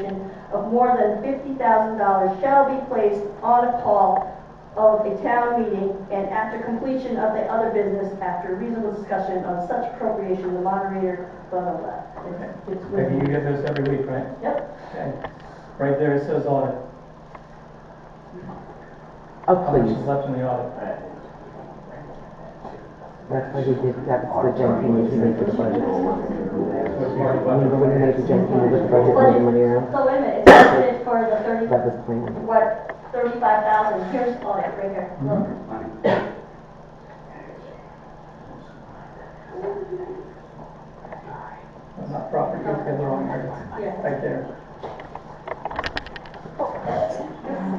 of more than fifty thousand dollars shall be placed on a call of a town meeting, and after completion of the other business, after reasonable discussion of such appropriation, the moderator, blah, blah, blah. It's- it's with- Becky, you get those every week, right? Yep, Okay. Right there, it says audit. How Oh, much please. is left in the audit? That's why he did, that was the junk thing that he did for the budget. What's Marty Remember when he Buffett? made the junk thing with the budget, moving money around? so wait a minute, it's budgeted for the thirty, That was the plan. what, thirty-five thousand, here's all that right here, look. That's not proper, you guys got the wrong areas. Yeah. Right there.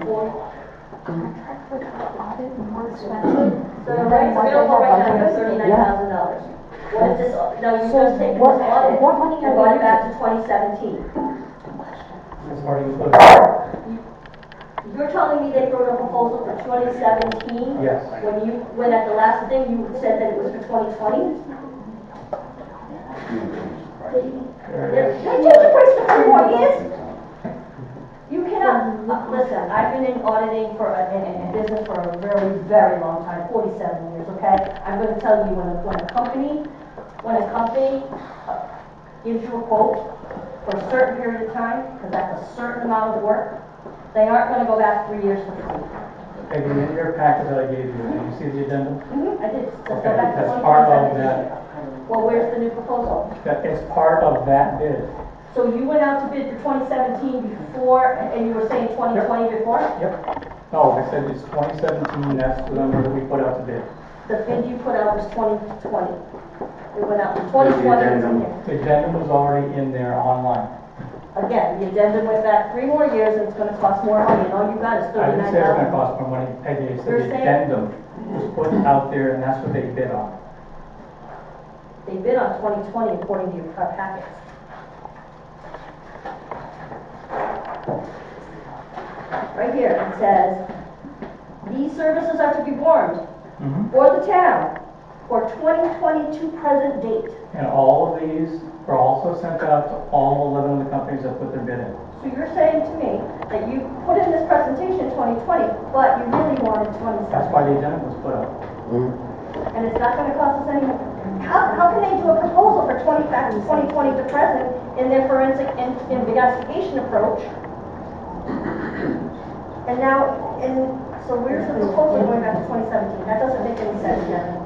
Four. contract for the audit more expensive? So the rates available right now is thirty-nine thousand dollars. What is this, no, you just take this what- audit, what money are and we run it back to twenty seventeen. What's Marty Buffett? You're telling me they wrote a proposal for twenty seventeen? Yes. When you, when at the last thing you said that it was for twenty twenty? They There it is. changed the price for three more years? You cannot, uh, listen, I've been in auditing for, a- in, in business for a very, very long time, forty-seven years, okay? I'm gonna tell you, when a, when a company, when a company uh, gives you a quote for a certain period of time, because that's a certain amount of work, they aren't gonna go back three years to complete. Becky, in your packet that I gave you, did you see the addendum? I did, so go Mm-hmm. Okay, back to that's part of 2017. that. Well, where's the new proposal? That is part of that bid. So you went out to bid for twenty seventeen before, and you were saying twenty twenty before? Yep. No, I said it's twenty seventeen, that's the number that we put out to bid. The bid you put out was twenty twenty. It went out in twenty twenty. The addendum was already in there online. Again, the addendum went back three more years, and it's gonna cost more money, Oh, and all you got is I didn't thirty-nine say it was gonna thousand. cost more money, Peggy, I said You're the saying- addendum was put out there and that's what they bid on. They bid on twenty twenty according to your prep packets. Right here, it says, these services are to be warned, Mhm. or the town, for twenty twenty-two present date. And all of these were also sent out to all eleven of the companies that put their bid in. So you're saying to me that you put in this presentation twenty twenty, but you really wanted twenty That's seventeen? why the addendum was put out. Mm. And it's not gonna cost us any, how, how can they do a proposal for twenty, back to twenty twenty to present in their forensic in- investigation approach? And now, and, so where's the proposal going back to twenty seventeen? That doesn't make any sense, Jen.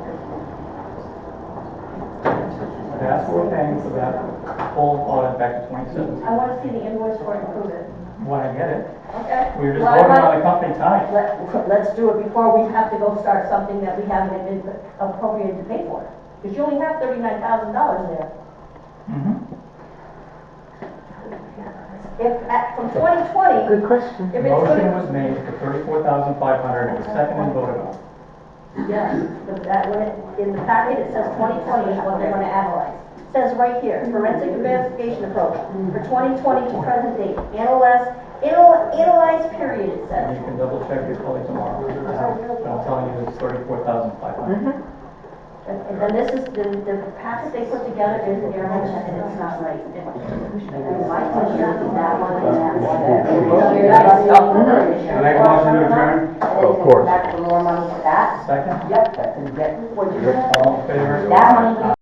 That's what we're paying for that full audit back to twenty seventeen. I wanna see the invoice for it and prove it. When I get it, Okay? we were just Why- voting why- on the company tonight. Let, let's do it before we have to go start something that we haven't been appropriated to pay for. Because you only have thirty-nine thousand dollars there. Mhm. If, at, from twenty twenty, Good question. if it's Motion gonna. was made for thirty-four thousand five hundred, it was seconded and voted on. Yes, but that, when it, in the packet, it says twenty twenty is what they're gonna analyze. It Says right here, forensic investigation approach for twenty twenty to present date, analyze, anal- analyze period, it And says. you can double check your colleague tomorrow. Uh, But I'm telling you, it's thirty-four thousand five hundred. Mm-hmm. And, and this is, the, the packet they put together is error and it's not right. And why can't you do that one and that one? Can I make a motion to adjourn? Of course. Back for more money for that? Second, Yep, that's exactly what you all in favor? That money